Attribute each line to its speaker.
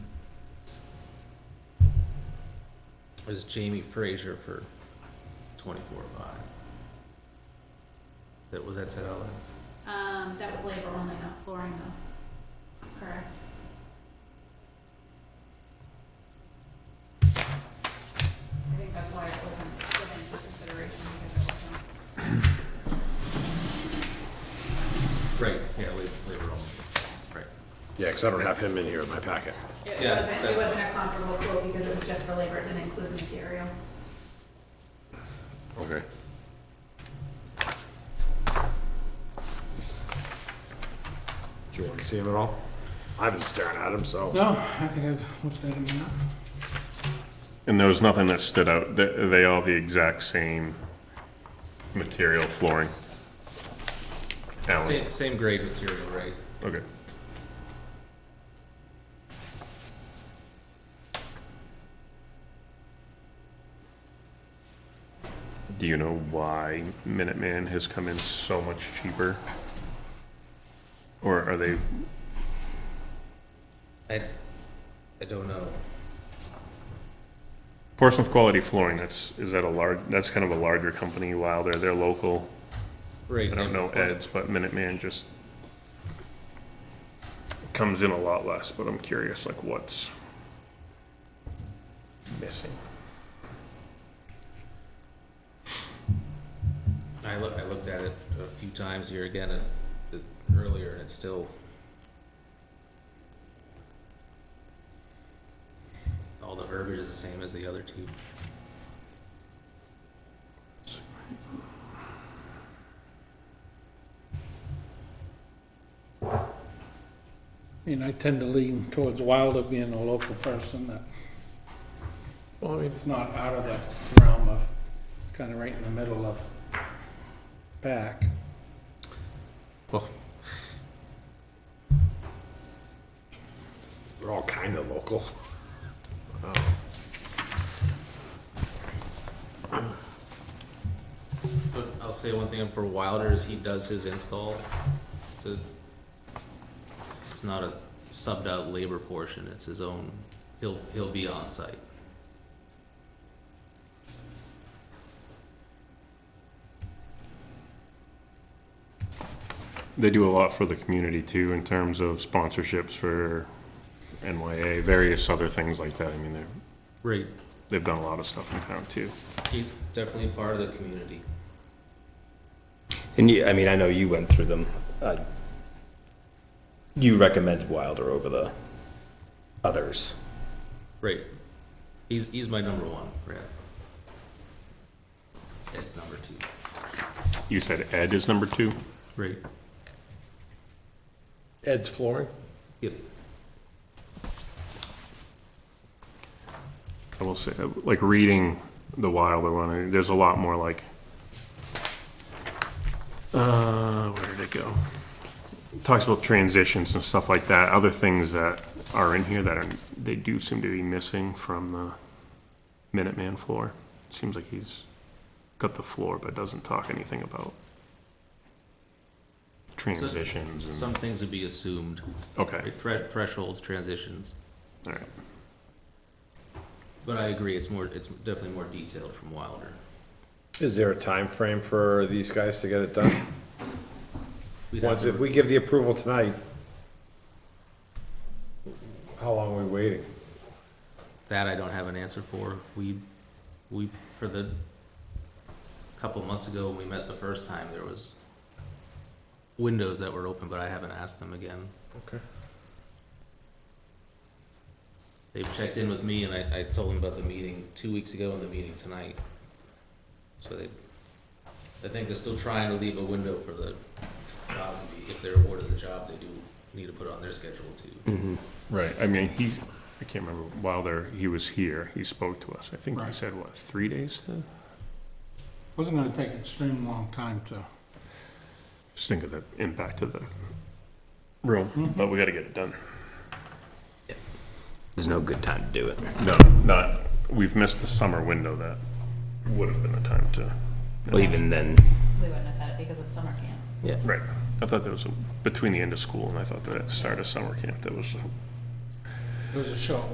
Speaker 1: is Jamie Fraser for twenty-four oh five. That was that said out loud?
Speaker 2: Um, that was labor only, not flooring though. Correct. I think that's why it wasn't given into consideration because it wasn't.
Speaker 1: Right, yeah, la- labor only, right.
Speaker 3: Yeah, because I don't have him in here in my packet.
Speaker 2: It
Speaker 1: Yeah,
Speaker 2: wasn't, it
Speaker 1: that's-
Speaker 2: wasn't a comparable quote because it was just for labor, it didn't include the material.
Speaker 3: Okay. Do you want to see him at all? I've been staring at him, so.
Speaker 4: No, I think I've looked at him enough.
Speaker 5: And there was nothing that stood out, they, they all the exact same material flooring? Alan,
Speaker 1: Same, same grade material, right?
Speaker 5: okay. Do you know why Minuteman has come in so much cheaper? Or are they,
Speaker 1: I, I don't know.
Speaker 5: Portsmouth Quality Flooring, that's, is that a large, that's kind of a larger company, while they're, they're local.
Speaker 1: Right.
Speaker 5: I don't know Ed's, but Minuteman just comes in a lot less, but I'm curious, like, what's missing?
Speaker 1: I look, I looked at it a few times here again at the, earlier and it's still. All the verbiage is the same as the other two.
Speaker 4: And I tend to lean towards Wilder being a local person that,
Speaker 3: Well, I mean,
Speaker 4: it's not out of the realm of, it's kind of right in the middle of back.
Speaker 3: they're all kind of local.
Speaker 1: But I'll say one thing for Wilder is he does his installs. It's a, it's not a subbed out labor portion, it's his own, he'll, he'll be on site.
Speaker 5: They do a lot for the community too, in terms of sponsorships for NYA, various other things like that. I mean, they're,
Speaker 1: Right.
Speaker 5: they've done a lot of stuff in town too.
Speaker 1: He's definitely part of the community.
Speaker 6: And you, I mean, I know you went through them. Uh, you recommended Wilder over the others.
Speaker 1: Right. He's, he's my number one, right? Ed's number two.
Speaker 5: You said Ed is number two?
Speaker 1: Right.
Speaker 3: Ed's flooring?
Speaker 1: Yep.
Speaker 5: I will say, like, reading the Wilder one, there's a lot more like, uh, where did it go? Talks about transitions and stuff like that, other things that are in here that are, they do seem to be missing from the Minuteman floor. Seems like he's got the floor, but doesn't talk anything about transitions and,
Speaker 1: Some things would be assumed,
Speaker 5: okay,
Speaker 1: right? Thre- Thresholds, transitions.
Speaker 5: all right.
Speaker 1: But I agree, it's more, it's definitely more detailed from Wilder.
Speaker 3: Is there a time frame for these guys to get it done?
Speaker 1: We'd have
Speaker 3: Once,
Speaker 1: to-
Speaker 3: if we give the approval tonight, how long are we waiting?
Speaker 1: That I don't have an answer for. We, we, for the, couple months ago, when we met the first time, there was windows that were open, but I haven't asked them again.
Speaker 3: Okay.
Speaker 1: They've checked in with me and I, I told them about the meeting two weeks ago and the meeting tonight. So they, I think they're still trying to leave a window for the job to be, if they're awarded the job, they do need to put it on their schedule too.
Speaker 5: Right, I mean, he, I can't remember, Wilder, he was here, he spoke to us, I think he
Speaker 4: Right.
Speaker 5: said, what, three days to?
Speaker 4: Wasn't gonna take an extreme long time to,
Speaker 5: Just think of the impact of the room, but we gotta get it done.
Speaker 6: There's no good time to do it.
Speaker 5: No, not, we've missed the summer window that would have been the time to.
Speaker 6: Well, even then,
Speaker 2: We wouldn't have had it because of summer camp.
Speaker 6: yeah.
Speaker 5: Right, I thought that was between the end of school and I thought that it started summer camp, that was
Speaker 4: it was a short